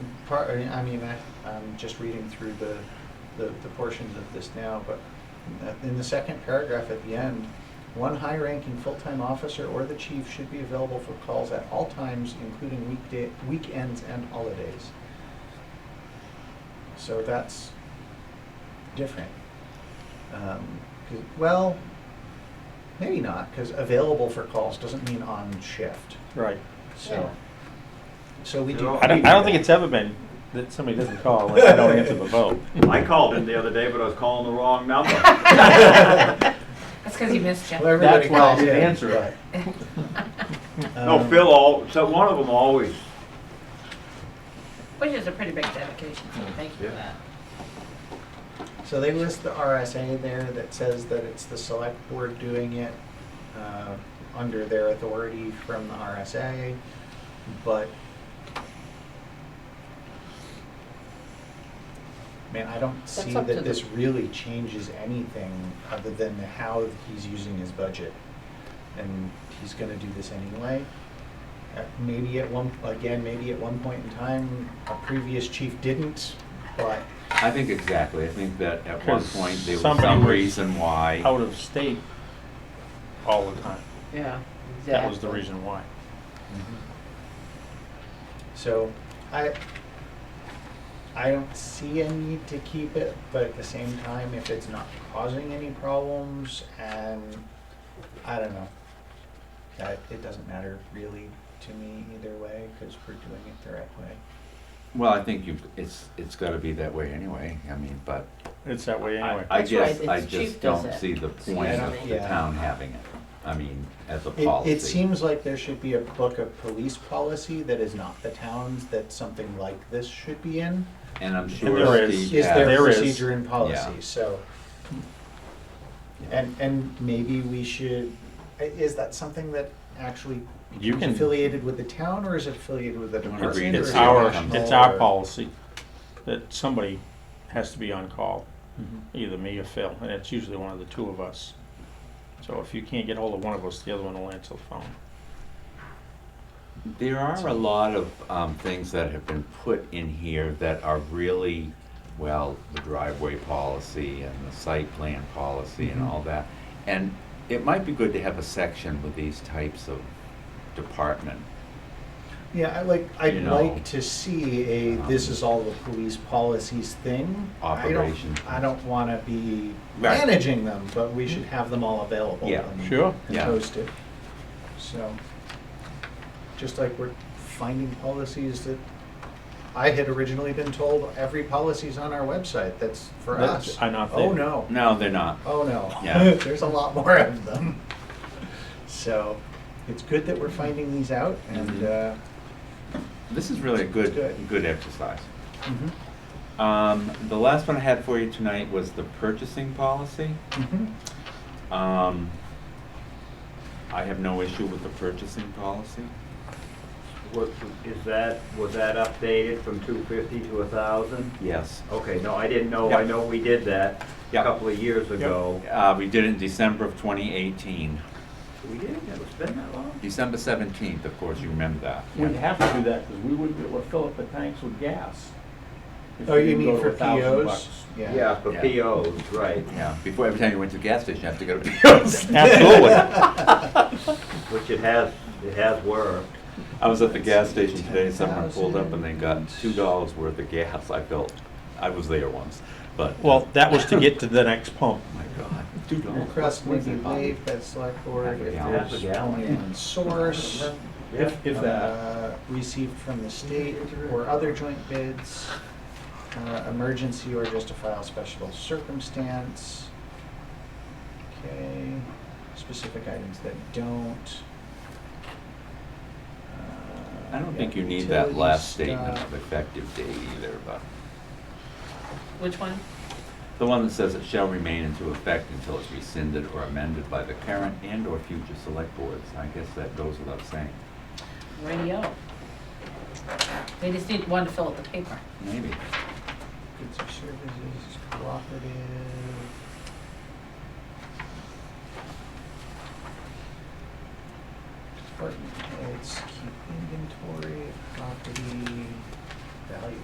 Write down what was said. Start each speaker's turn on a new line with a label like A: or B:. A: part, I mean, I, I'm just reading through the, the, the portions of this now, but in the second paragraph at the end, one high-ranking full-time officer or the chief should be available for calls at all times, including weekday, weekends and holidays. So that's different. Um, 'cause- well, maybe not, because available for calls doesn't mean on shift,
B: Right.
A: so. So we
C: You
A: do.
C: know,
B: I don't, I don't think it's ever been that somebody doesn't call and I don't answer the phone.
C: I called in the other day, but I was calling the wrong number.
D: That's because you missed
A: Well,
D: Jeff.
A: everybody
B: That's why I
A: calls
B: didn't
A: in,
B: answer it.
A: but,
C: No,
A: um,
C: Phil all, so one of them always,
D: Which is a pretty big dedication, so thank you for
C: Yeah.
D: that.
A: So they list the RSA there that says that it's the select board doing it uh, under their authority from the RSA, but man, I don't see
D: up to
A: that
D: the-
A: this really changes anything other than how he's using his budget. And he's gonna do this anyway. At- Maybe at one, again, maybe at one point in time, a previous chief didn't, but
E: I think exactly. I think that at one
B: 'Cause
E: point there was
B: somebody
E: some
B: was
E: reason why.
B: Out of state all the time.
F: Yeah, exactly.
B: That was the reason why.
A: Mm-hmm. So, I, I don't see a need to keep it, but at the same time, if it's not causing any problems, and I don't know. That, it doesn't matter really to me either way, because we're doing it the right way.
E: Well, I think you. It's it's got to be that way anyway. I mean, but
B: It's that way anyway.
E: I, I
F: That's
E: guess
F: right,
E: I
F: it's
E: just
F: chief does
E: don't
F: it.
E: see the
F: It's the
E: point
A: enemy.
E: of the
A: Yeah.
E: town having it. I mean, as a
A: It,
E: policy.
A: it seems like there should be a book of police policy that is not the town's, that something like this should be in.
E: and I'm sure
B: And there
E: Steve
B: is.
A: Is
E: has-
A: there
B: There is.
A: procedure and
E: Yeah.
A: policy, so. And, and maybe we should, i- is that something that actually
B: You
A: is
B: can-
A: affiliated with the town or is it affiliated with the department?
E: Agreed.
A: or
B: It's
A: is it
B: our,
A: national
B: it's our
A: or-
B: policy that somebody has to be on call,
A: Mhm.
B: either me or Phil, and it's usually one of the two of us. So if you can't get hold of one of us, the other one will answer the phone.
E: There are a lot of um, things that have been put in here that are really, well, the driveway policy and the site plan policy
A: Mm-hmm.
E: and all that. And it might be good to have a section with these types of department.
A: Yeah, I like, I'd
E: You know.
A: like to see a, this is all the police policies thing. I don't-
E: Operation.
A: I don't wanna be
E: Right. Mm-hmm.
A: managing them, but we should have them all available.
E: Yeah,
A: and-
B: sure.
A: And
E: Yeah.
A: posted, so, just like we're finding policies that I had originally been told, every policy's on our website, that's for
B: That's-
A: us.
B: I not
A: Oh,
B: there.
A: no.
E: No, they're not.
A: Oh no.
E: Yeah.
A: There's a lot more of them. So it's good that we're finding these out and
E: Mm-hmm.
A: uh,
E: This is really a good,
A: Good.
E: good exercise.
A: mhm,
E: Um, the last one I had for you tonight was the purchasing policy.
A: mhm.
E: Um, I have no issue with the purchasing policy.
C: was, is that, was that updated from two fifty to a thousand?
E: Yes.
C: Okay, no, I didn't know, I
E: Yeah.
C: know we did that a
E: Yeah.
C: couple of years ago.
E: Uh, we did it in December of 2018.
C: We did, it's been that long?
E: December 17th, of course, you remember that.
B: We'd have to do that because we wouldn't be able to fill up the tanks with gas. if
A: Oh,
B: we
A: you
B: didn't go
A: mean
B: to
A: for
B: 1,000
A: POs?
B: bucks.
C: Yeah, for
E: Yeah.
C: POs, right,
E: Yeah, before, every time you went to the gas station, you have to go to PO's.
B: Absolutely.
C: which it has, it has worked.
E: I was at the gas station today, someone pulled up and they got two dollars worth of gas, I felt, I was there once, but.
B: Well, that was to get to the next pump.
E: My God, two dollars.
A: Request may be waived by the select board if
E: Yeah.
A: there's
C: Yeah.
A: only one source.
B: If, if that.
A: uh, Received from the state or other joint bids, uh, emergency or justifiable special circumstance. Okay, specific items that don't.
E: I don't think you need
A: Uh, Utility
E: that last statement
A: stuff.
E: of effective date either, but,
D: Which one?
E: the one that says it shall remain into effect until it's rescinded or amended by the current and or future select boards, I guess that goes without saying,
D: Radio. They just need one to fill out the paper.
E: maybe.
A: Goods or services, cooperative. Department heads keep inventory of property, value